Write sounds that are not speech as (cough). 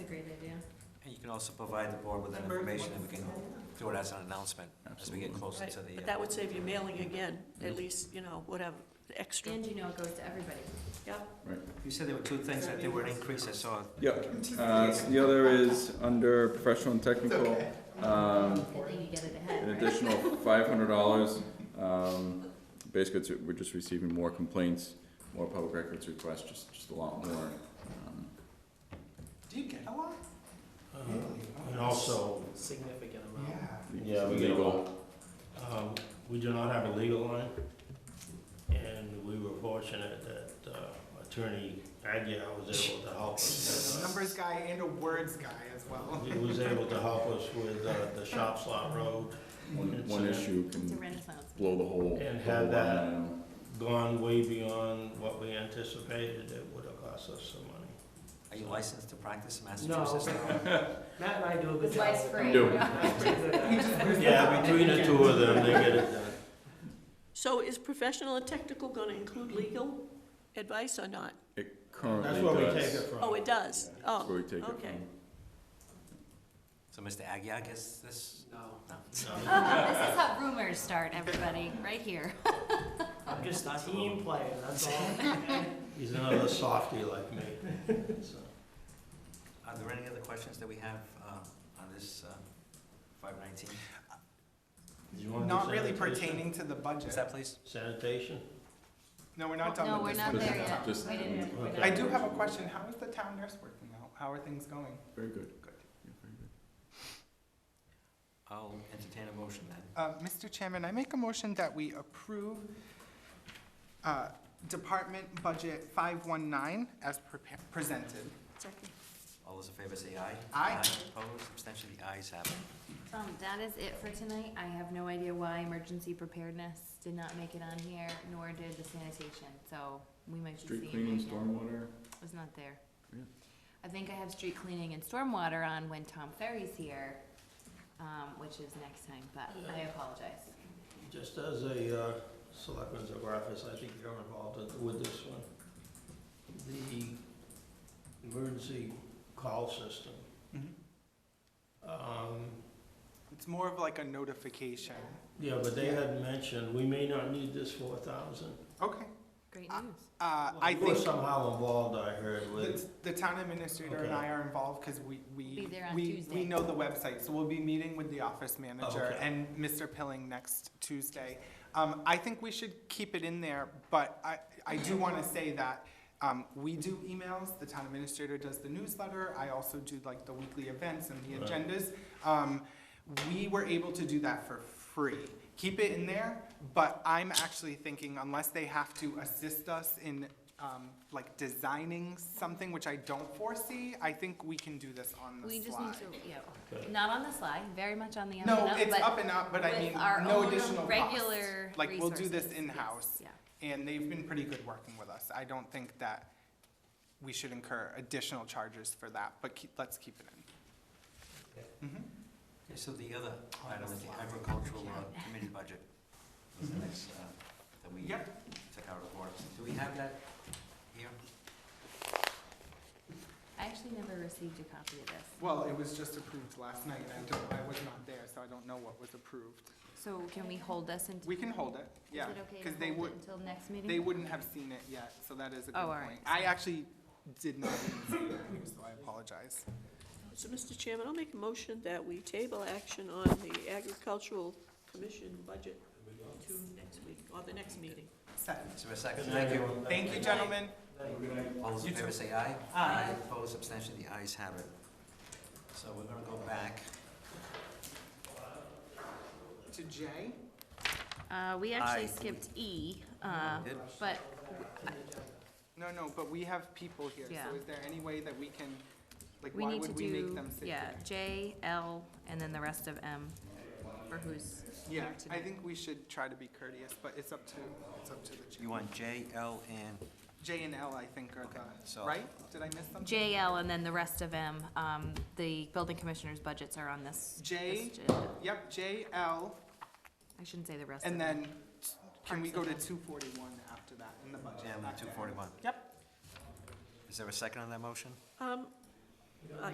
can also provide the board with that information, and we can do it as an announcement as we get Absolutely. closer to Right, the. but uh, that would save you mailing again, at least, you know, whatever, extra, And you know it goes to everybody. yeah. You said there were two things that they were an increase, I saw. Yeah, uh, so the other is under professional and technical, um, Good thing you get it an ahead. additional five hundred dollars. Um, basically, it's, we're just receiving more complaints, more public records requests, just, just a lot more. Um, Do you get a lot? Uh, And also, Significant amount. yeah, we get a legal. lot. Uh, We do not have a legal line, and we were fortunate that uh, Attorney Agia was able to help us. Numbers guy and a words guy as well. He was able to help us with uh, the Shop Slot Road, One, one It's, uh, issue It's a can renaissance. blow the whole. And the whole have that line item. gone way beyond what we anticipated it would have cost us some money. Are you licensed to practice in Massachusetts? Matt and I do a It's vice free. Do. Yeah, between the two of them, they get it done. So is professional and technical gonna include legal advice or not? It currently does. That's where we take it from. Oh, it does, That's where oh, we take it okay. from. So Mr. Agia gets this? No. No. (laughs) This is how rumors start, everybody, right here. I'm just a team player, that's all. He's another softie like me, so. Are there any other questions that we have uh, on this five nineteen? You wanna do Not really sanitation? pertaining to the budget. Is that please? Sanitation? No, we're not done No, with we're this. not Just- there yet. just- We didn't- we're not I Okay. do there. have a question. How is the town nurse working out? How are things going? Very good. Good. Yeah, very good. I'll entertain a motion then. Uh, Mr. Chairman, I make a motion that we approve uh, Department Budget 519 as prepa- presented. Second. All those in favor say aye. Aye. Opposed, abstention, the ayes have it. Um, that is it for tonight. I have no idea why emergency preparedness did not make it on here, nor did the sanitation, so we might be seeing Street it cleaning, again. stormwater, was not there. Yeah. I think I have street cleaning and stormwater on when Tom Ferry's here, um, which is next time, but I apologize. Just as a uh, selectman's of office, I think you're involved with- with this one. The emergency call system. Mhm. Um, It's more of like a notification. Yeah, but they had mentioned, we may not need this four thousand. Okay. Great Uh, news. Uh, I You were think somehow involved, I heard, the, with, the town administrator and I are involved because we, Be we, there on we, Tuesday. we know the website. So we'll be meeting with the office manager Oh, Okay. and Mr. Pilling next Tuesday. Um, I think we should keep it in there, but I, I do want to say that, um, we do emails, the town administrator does the newsletter, I also do like the weekly events and the Right. agendas. Um, we were able to do that for free. Keep it in there, but I'm actually thinking unless they have to assist us in, um, like designing something, which I don't foresee, I think we can do this on the We slide. just need to, yeah, Okay. not on the slide, very much on the up and No, up, it's but up and up, but I with mean, our no own additional cost. regular Like, we'll do this resources, yes, in-house. Yeah. And they've been pretty good working with us. I don't think that we should incur additional charges for that, but keep, let's keep it in. Mhm. Okay, so the other item is the agricultural uh, committee budget. Was the next, uh, that we Yep. took out of order. Do we have that here? I actually never received a copy of this. Well, it was just approved last night, and I don't, I was not there, so I don't know what was approved. So can we hold this until, We is can hold it, yeah, it okay because to they hold would, it until next meeting? they wouldn't have seen it yet, so that is a good Mm-hmm. Oh, all point. right. I actually did not even see that news, so I apologize. So, Mr. Chairman, I'll make a motion that we table action on the agricultural commission budget to next week, or the next meeting. Second. Is there a second? Thank you. Thank you, gentlemen. All those in You favor too. say aye. Aye. Opposed, abstention, the ayes have it. So we're gonna go back. To Jay? Uh, we I- actually skipped E, uh, Did- but No, no, but we have people here, Yeah. so is there any way that we can, like, We why need to would we make do, them sit here? yeah, J, L, and then the rest of M for who's Yeah, here I today. think we should try to be courteous, but it's up to, it's up to the chair. You want J, L, and, J and L, I think, are the, so- right? Did I miss something? J, L, and then the rest of M, um, the building commissioner's budgets are on this. J. this agenda. Yep, J, L, I shouldn't say the rest of and them. then t- can we go Parks to and two forty-one after that in the budget? and not two there. forty-one? Yep. Is there a second on that motion? Um,